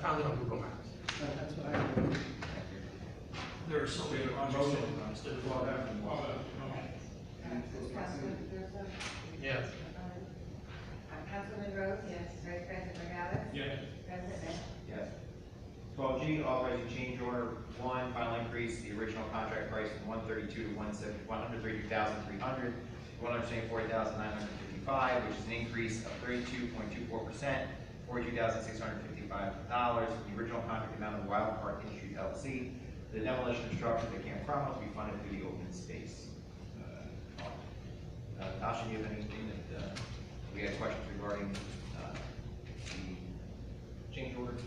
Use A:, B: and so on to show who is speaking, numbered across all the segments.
A: found it on Google Maps.
B: That's what I.
A: There are so many roads instead of all that.
C: Councilman Thurston?
A: Yes.
C: Uh, Councilman Rhodes? Yes. Vice President Morales?
A: Yes.
C: President Beck?
D: Yes. Twelve G, authorizing change order one, final increase, the original contract price from one thirty-two to one seventy, one hundred thirty-two thousand three hundred, one hundred seventy-four thousand nine hundred fifty-five, which is an increase of thirty-two point two four percent, forty-two thousand six hundred fifty-five dollars, the original contract amount of Wild Park Industries LLC, the demolition and structure at Camp Cromwell will be funded through the open space. Uh, Tasha, do you have anything that, uh, we had questions regarding, uh, the change order?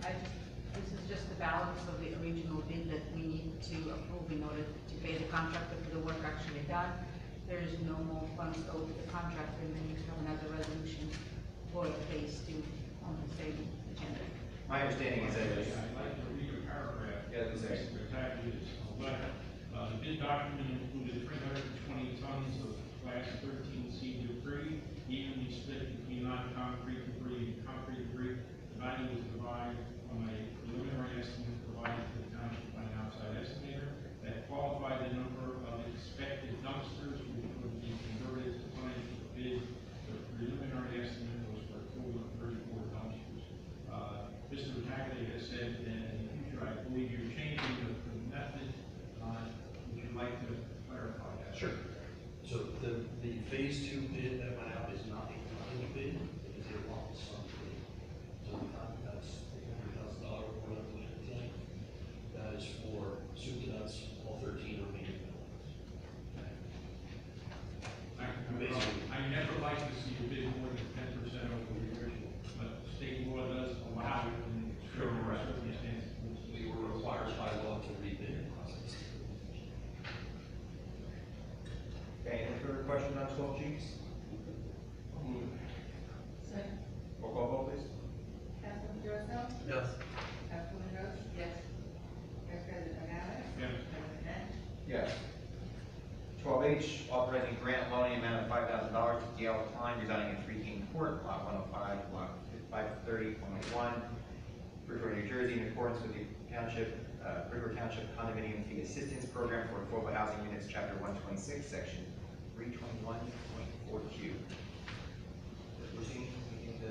E: I just, this is just the balance of the original bid that we need to approve in order to pay the contractor for the work actually done. There is no more funds owed to the contractor, and then you have another resolution for phase two on the same agenda.
D: My understanding is that
F: I'd
D: it's
F: like to read a paragraph.
D: Yeah, that's okay.
F: The packages, but, uh, the bid document included three hundred and twenty tons of class thirteen C debris, evenly split between non-concrete debris and concrete debree. The value was derived from a preliminary estimate provided to the township by an outside estimator that qualified the number of expected dumpsters which would be converted to tonnage for bid. The preliminary estimate was for a total of thirty-four dumpsters. Uh, Mr. Hagley has said that in the future, I believe you're changing the the method. Uh, Would you like to clarify that?
G: Sure. So the, the phase two bid that went out is not a tonnage bid, it is a lump sum bid. So the contract's three hundred thousand dollar one up to tank. That is for soup to nuts, all thirteen remaining buildings. Amazing.
F: I- I never like to see a bid more than ten percent over the original, but state law does allow it in certain
G: Correct, yeah.
F: circumstances.
G: We were required by law to rebid the process.
D: Okay, any further question on twelve Gs?
C: Second.
D: Roll call vote, please.
C: Councilman Thurston?
A: Yes.
C: Councilman Rhodes? Yes. Vice President Morales?
F: Yes.
C: President Beck?
D: Yes. Twelve H, authorizing grant loaning amount of five thousand dollars to Gail Klein residing at Three King Court, lot one oh five, block five thirty point one, River, New Jersey, in accordance with the township, uh, River Township Condominium Fee Assistance Program for Affordable Housing Units, Chapter one twenty-six, Section three twenty-one point four Q. Proceeding, we need to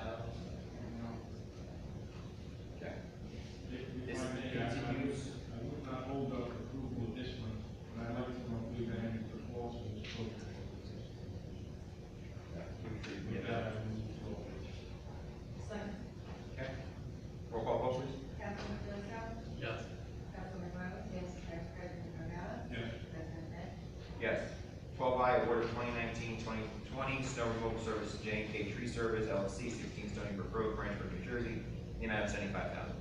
D: add on? Okay.
F: If
D: This
F: I may, I- I would-
D: continues.
F: I would not hold up approval of this one, but I'd like to include that in the clause of this program. With that, I move to all.
D: Okay. Roll call vote, please.
C: Councilman Thurston?
A: Yes.
C: Councilman Rhodes? Yes. Vice President Morales?
F: Yes.
C: President Beck?
D: Yes. Twelve I, award of 2019-2020 snow removal service to J and K Tree Service LLC, sixteen Stony Brook Road, Branchford, New Jersey, in the amount of seventy-five thousand.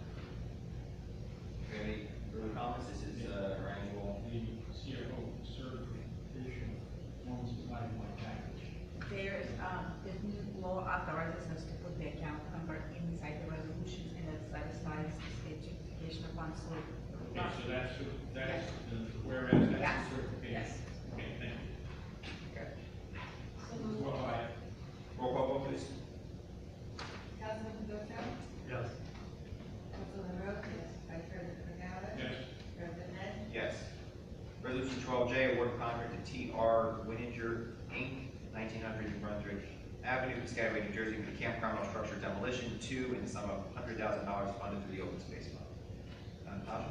D: Any further comments? This is, uh, our annual.
F: the CFO certification forms of life like package.
E: There is, um, this new law authorizes us to put the account number inside the resolution, and that satisfies the state justification upon so.
F: Okay, so that's, that's, the- whereas that's
E: Yes.
F: the certification.
E: Yes.
F: Okay, thank you.
D: Okay.
F: Well, I,
D: Roll call vote, please.
C: Councilman Thurston?
A: Yes.
C: Councilman Rhodes? Yes. Vice President Morales?
F: yes,
C: President Beck?
D: Yes. Resolution twelve J, award of contract to T R Wininger Inc., nineteen hundred New Brunswick Avenue, Piscataway, New Jersey, for the Camp Cromwell structure demolition two, in the sum of hundred thousand dollars funded through the open space fund. Uh, Tasha?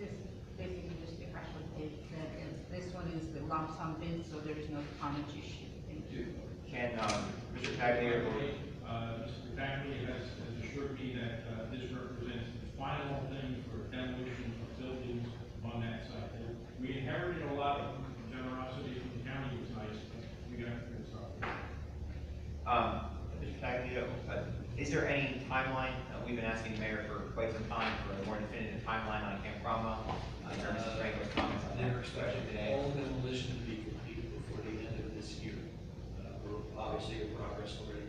E: This is basically just the actual date, that is, this one is the lump sum bid, so there is no tonnage issue. Thank you.
D: Can, um, Mr. Taglier,
F: Uh, Mr. Bagley has has assured me that, uh, this represents the final thing for demolition of buildings on that site. We inherited a lot of generosity from the county, it was nice, but we got to fix up.
D: um, Mr. Taglier, uh, is there any timeline, uh, we've been asking the mayor for quite some time for a more definitive timeline on Camp Cromwell? Uh, there are Mrs. Franco's comments on that.
G: They're expecting
D: today.
G: all demolition to be completed before the end of this year. Uh, We're obviously in progress already Uh, uh,